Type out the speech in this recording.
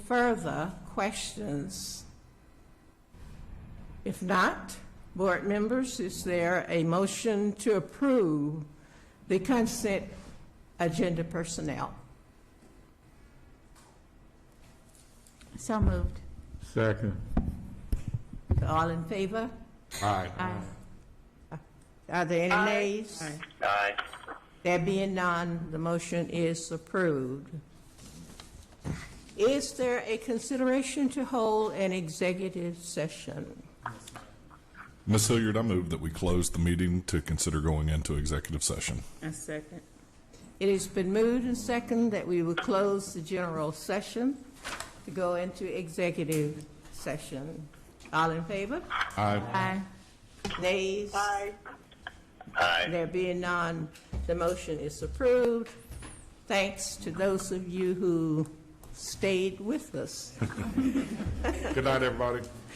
further questions? If not, board members, is there a motion to approve the consent agenda personnel? So moved. Second. All in favor? Aye. Are there any nays? Aye. There being none, the motion is approved. Is there a consideration to hold an executive session? Ms. Hilliard, I move that we close the meeting to consider going into executive session. A second. It has been moved and seconded that we will close the general session to go into executive session. All in favor? Aye. Aye. Nays? Aye. There being none, the motion is approved. Thanks to those of you who stayed with us. Good night, everybody.